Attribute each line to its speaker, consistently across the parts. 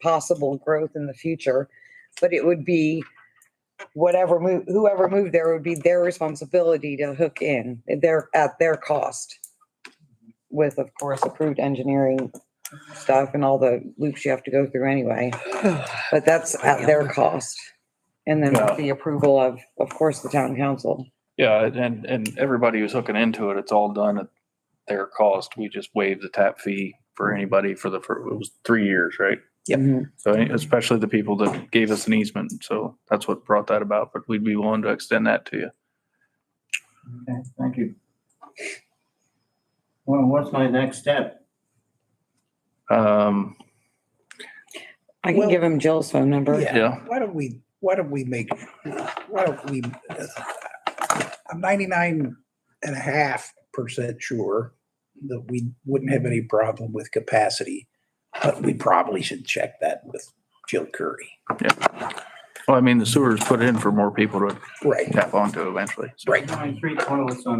Speaker 1: possible growth in the future. But it would be whatever move, whoever moved there would be their responsibility to hook in, their, at their cost. With, of course, approved engineering stuff and all the loops you have to go through anyway. But that's at their cost. And then with the approval of, of course, the town council.
Speaker 2: Yeah, and, and everybody who's hooking into it, it's all done at their cost. We just waive the tap fee for anybody for the, for, it was three years, right?
Speaker 3: Yep.
Speaker 1: Mhm.
Speaker 2: So eh, especially the people that gave us an easement. So that's what brought that about, but we'd be willing to extend that to you.
Speaker 4: Okay, thank you. Well, what's my next step?
Speaker 2: Um,
Speaker 1: I can
Speaker 3: Well-
Speaker 1: give him Jill's phone number.
Speaker 3: Yeah.
Speaker 2: yeah,
Speaker 3: Why don't we, why don't we make, why don't we, I'm 99 and a half percent sure that we wouldn't have any problem with capacity, but we probably should check that with Jill Curry.
Speaker 2: well, I mean, the sewer's put in for more people to
Speaker 3: Right,
Speaker 2: tap onto eventually. So
Speaker 3: right.
Speaker 4: My three toilets on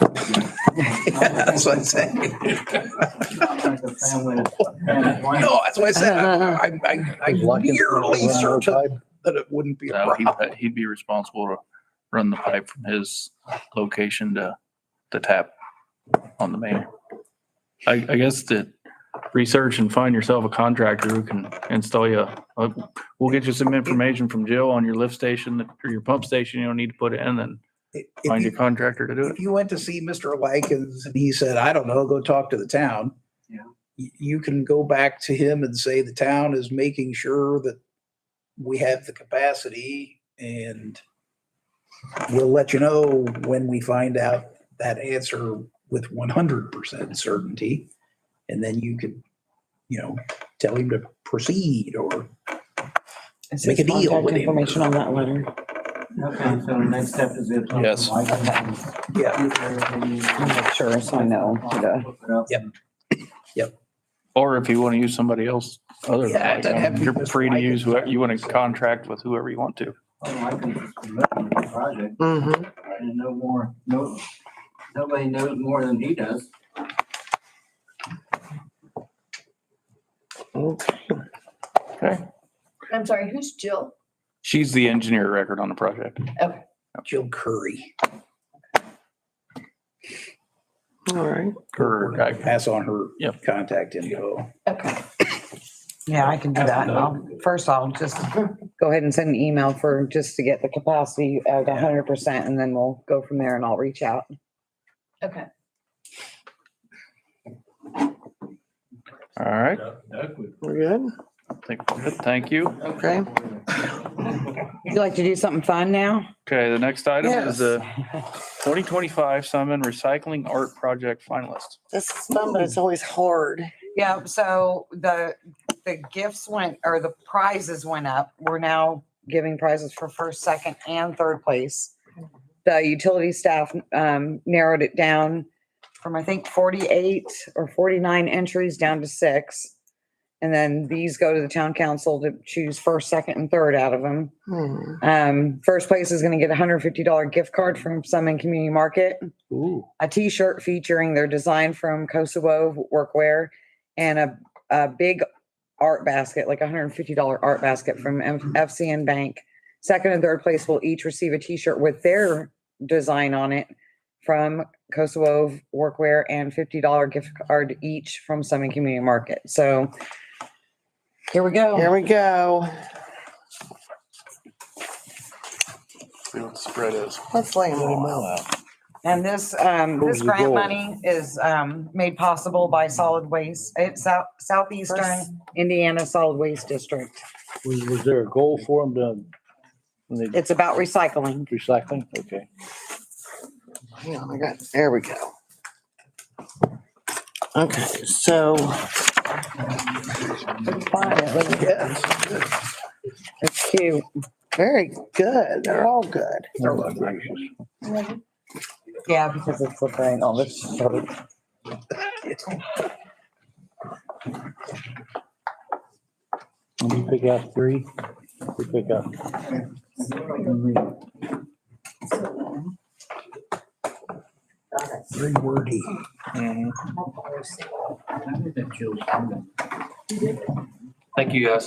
Speaker 4: that.
Speaker 3: That's what I'm saying.
Speaker 4: Like a family- family one.
Speaker 3: No, that's what I said. I'm, I'm I'm nearly certain that it wouldn't be a
Speaker 2: so
Speaker 3: problem.
Speaker 2: he'd, he'd be responsible to run the pipe from his location to the tap on the main. I, I guess that research and find yourself a contractor who can install you. a- a- We'll get you some information from Jill on your lift station that- or your pump station you don't need to put in and
Speaker 3: If
Speaker 2: find
Speaker 3: you-
Speaker 2: your contractor to do it.
Speaker 3: If you went to see Mr. Likens and he said, I don't know, go talk to the town.
Speaker 4: Yeah.
Speaker 3: y- You can go back to him and say, the town is making sure that we have the capacity and we'll let you know when we find out that answer with one hundred percent certainty. And then you could, you know, tell him to proceed or
Speaker 1: Is
Speaker 3: Make
Speaker 1: his
Speaker 3: a deal
Speaker 1: contact
Speaker 3: with him.
Speaker 1: Information on that letter.
Speaker 4: Okay, so the next step is it.
Speaker 2: Yes.
Speaker 3: Yeah.
Speaker 1: I'll make sure, so I know who to-
Speaker 3: Yep.
Speaker 2: Or if you want to use somebody else other than
Speaker 3: Yeah, it doesn't have to
Speaker 2: that,
Speaker 3: be
Speaker 2: you're
Speaker 3: just
Speaker 2: free to
Speaker 3: like
Speaker 2: use
Speaker 3: it.
Speaker 2: whoever, you want to contract with whoever you want to.
Speaker 4: Oh, I can just be looking at the project
Speaker 1: Mm-hmm.
Speaker 4: and no more, no, nobody knows more than he does.
Speaker 2: Okay.
Speaker 5: I'm sorry, who's Jill?
Speaker 2: She's the engineer record on the project.
Speaker 3: Jill Curry.
Speaker 2: Or,
Speaker 3: We'll Pass on her
Speaker 2: Yep.
Speaker 3: contact info.
Speaker 5: Okay.
Speaker 1: Yeah, I can do that. And I'll, first I'll just go ahead and send an email for, just to get the capacity at a hundred percent and then we'll go from there and I'll reach out.
Speaker 5: Okay.
Speaker 2: all right.
Speaker 6: We're good?
Speaker 2: Thank, good, thank you.
Speaker 6: Okay.
Speaker 1: Would you like to do something fun now?
Speaker 2: Okay, the next item is
Speaker 6: Yes.
Speaker 2: the twenty twenty-five Simon Recycling Art Project finalist.
Speaker 6: This is fun, but it's always hard.
Speaker 1: Yeah, so the, the gifts went, or the prizes went up. We're now giving prizes for first, second, and third place. The utility staff um, narrowed it down from, I think, forty-eight or forty-nine entries down to six. And then these go to the town council to choose first, second, and third out of them.
Speaker 6: Hmm.
Speaker 1: Um, first place is gonna get a hundred fifty dollar gift card from Summon Community Market,
Speaker 2: Ooh.
Speaker 1: a T-shirt featuring their design from Kosovo Workwear, and a, a big art basket, like a hundred and fifty dollar art basket from M- FCN Bank. Second and third place will each receive a T-shirt with their design on it from Kosovo Workwear and fifty dollar gift card each from Summon Community Market. So here we go.
Speaker 6: Here we go.
Speaker 7: See what the spread is.
Speaker 6: Let's lay them
Speaker 7: Let 'em
Speaker 6: all out.
Speaker 7: all out.
Speaker 1: And this, um,
Speaker 7: What
Speaker 1: this
Speaker 7: was the
Speaker 1: grant
Speaker 7: goal?
Speaker 1: money is, um, made possible by Solid Waste, it's South,
Speaker 6: First-
Speaker 1: Southeastern Indiana Solid Waste District.
Speaker 7: Was, was there a goal for them to, when they
Speaker 1: It's about recycling.
Speaker 7: recycling? Okay.
Speaker 6: Hang on, I got, there we go. Okay, so
Speaker 3: Yes.
Speaker 1: It's cute.
Speaker 6: very good. They're all good.
Speaker 3: Oh, gracious.
Speaker 1: Yeah, because it's the brain, all this. sort of-
Speaker 7: Let me pick out three. We pick up.
Speaker 3: Very wordy.
Speaker 2: Thank you, guys.